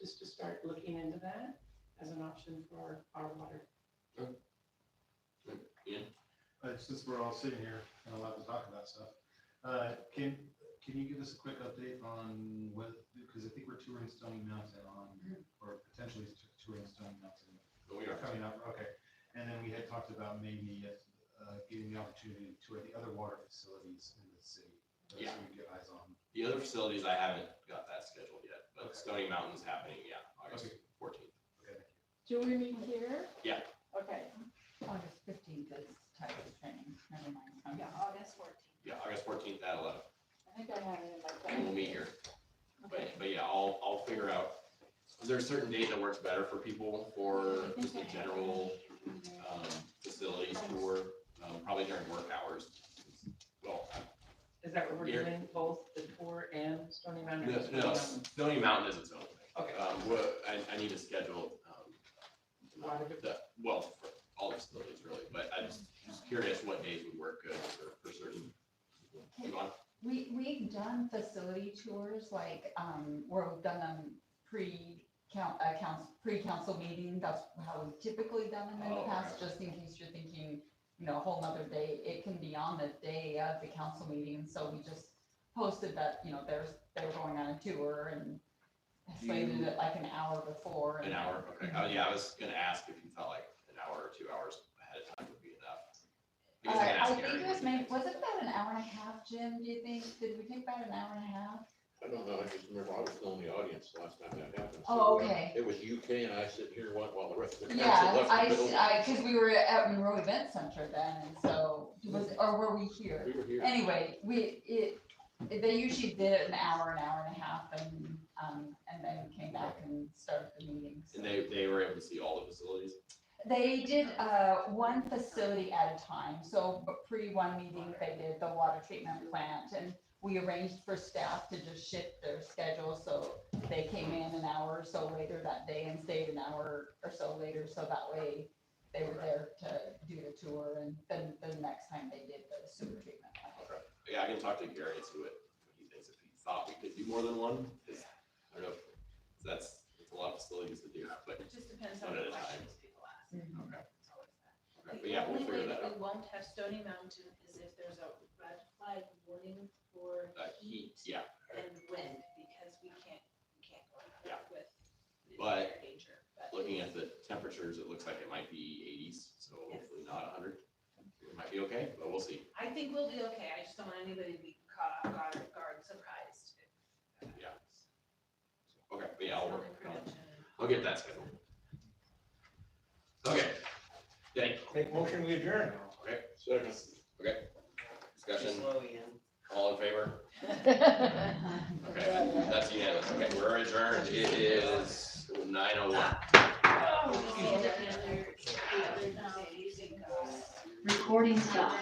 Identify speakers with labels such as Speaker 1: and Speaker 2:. Speaker 1: just to start looking into that as an option for our water.
Speaker 2: Uh, since we're all sitting here and allowed to talk about stuff, uh, can, can you give us a quick update on what, because I think we're touring Stony Mountain on, or potentially t- touring Stony Mountain.
Speaker 3: But we are,
Speaker 2: Coming up, okay. And then we had talked about maybe, uh, getting the opportunity to tour the other water facilities in the city. those
Speaker 3: Yeah.
Speaker 2: we can get eyes on.
Speaker 3: the other facilities, I haven't got that scheduled yet, but
Speaker 2: Okay.
Speaker 3: Stony Mountain's happening, yeah, August
Speaker 2: Okay.
Speaker 3: fourteenth.
Speaker 2: Okay.
Speaker 4: Do we meet here?
Speaker 3: Yeah.
Speaker 4: Okay,
Speaker 5: August fifteenth is Tyler's training, never mind. I'm-
Speaker 6: Yeah, August fourteenth.
Speaker 3: Yeah, August fourteenth at eleven,
Speaker 4: I think I have it in my.
Speaker 3: and we'll meet here. But, but yeah, I'll, I'll figure out, is there a certain date that works better for people for just a general, um, facilities tour? Um, probably during work hours. Well,
Speaker 1: Is that what we're
Speaker 3: Here.
Speaker 1: doing, both the tour and Stony Mountain?
Speaker 3: No, no, Stony Mountain is its own thing.
Speaker 1: Okay.
Speaker 3: Um, what, I, I need to schedule, um,
Speaker 1: Lot of it.
Speaker 3: the, well, for all the facilities really, but I'm just just curious what days would work good for, for certain. You want-
Speaker 5: We, we've done facility tours, like, um, where we've done them pre-count, uh, council, pre-council meeting, that's how we've typically done them in the
Speaker 3: Oh,
Speaker 5: past,
Speaker 3: okay.
Speaker 5: just in case you're thinking, you know, a whole nother day, it can be on the day of the council meeting, so we just posted that, you know, there's, they're going on a tour and
Speaker 3: Do
Speaker 5: slated
Speaker 3: you-
Speaker 5: it like an hour before.
Speaker 3: An
Speaker 5: and-
Speaker 3: hour, okay. Oh, yeah, I was gonna ask if you thought like an hour or two hours ahead of time would be enough. I guess I can
Speaker 5: Uh, I
Speaker 3: ask
Speaker 5: think
Speaker 3: Aaron.
Speaker 5: it was maybe, was it about an hour and a half, Jim, do you think? Did we take about an hour and a half?
Speaker 7: I don't know, I just remember I was still in the audience the last time that happened.
Speaker 5: Oh,
Speaker 7: so, uh,
Speaker 5: okay.
Speaker 7: It was UK and I sit here one while the rest of the council
Speaker 5: Yeah,
Speaker 7: left.
Speaker 5: I,
Speaker 7: the building.
Speaker 5: I, cause we were at Monroe Event Center then, and so, was, or were we here?
Speaker 7: We were here.
Speaker 5: Anyway, we, it, they usually did it an hour, an hour and a half, and, um, and then came back and started the meetings.
Speaker 3: And they, they were able to see all the facilities?
Speaker 5: They did, uh, one facility at a time, so b- pre one meeting, they did the water treatment plant, and we arranged for staff to just shift their schedule, so they came in an hour or so later that day and stayed an hour or so later, so that way they were there to do the tour, and then the next time they did the sewer treatment plant.
Speaker 3: Okay. Yeah, I can talk to Gary and see what, what he thinks, if he thought we could do more than one, 'cause I don't know, if- that's, it's a lot of facilities to do, but,
Speaker 6: It just depends on
Speaker 3: One
Speaker 6: the
Speaker 3: at a time.
Speaker 6: questions people ask.
Speaker 3: okay.
Speaker 6: It's always that.
Speaker 3: Okay, But
Speaker 6: The
Speaker 3: yeah, we'll
Speaker 6: only way
Speaker 3: figure that
Speaker 6: that we
Speaker 3: out.
Speaker 6: won't have Stony Mountain is if there's a red flag warning for
Speaker 3: Uh,
Speaker 6: heat
Speaker 3: Yeah,
Speaker 6: and wind, because we can't, we can't go out there with the
Speaker 3: But-
Speaker 6: fire danger. But
Speaker 3: looking at the temperatures, it looks like it might be eighties, so hopefully not hundred. It might be okay, but we'll see.
Speaker 6: I think we'll be okay. I just don't want anybody to be caught off guard, guard surprised.
Speaker 3: Yeah. Okay, but yeah, I'll work.
Speaker 6: It's
Speaker 3: I'll-
Speaker 6: only prevention.
Speaker 3: I'll get that scheduled. Okay. Thank you.
Speaker 8: Make motion, we adjourn.
Speaker 7: Second.
Speaker 3: Discussion, all in favor? Okay,
Speaker 4: Yeah,
Speaker 3: that's unanimous. Okay, we're adjourned. It is nine oh one.
Speaker 6: Oh, the other, the other, um,
Speaker 5: Recording stopped.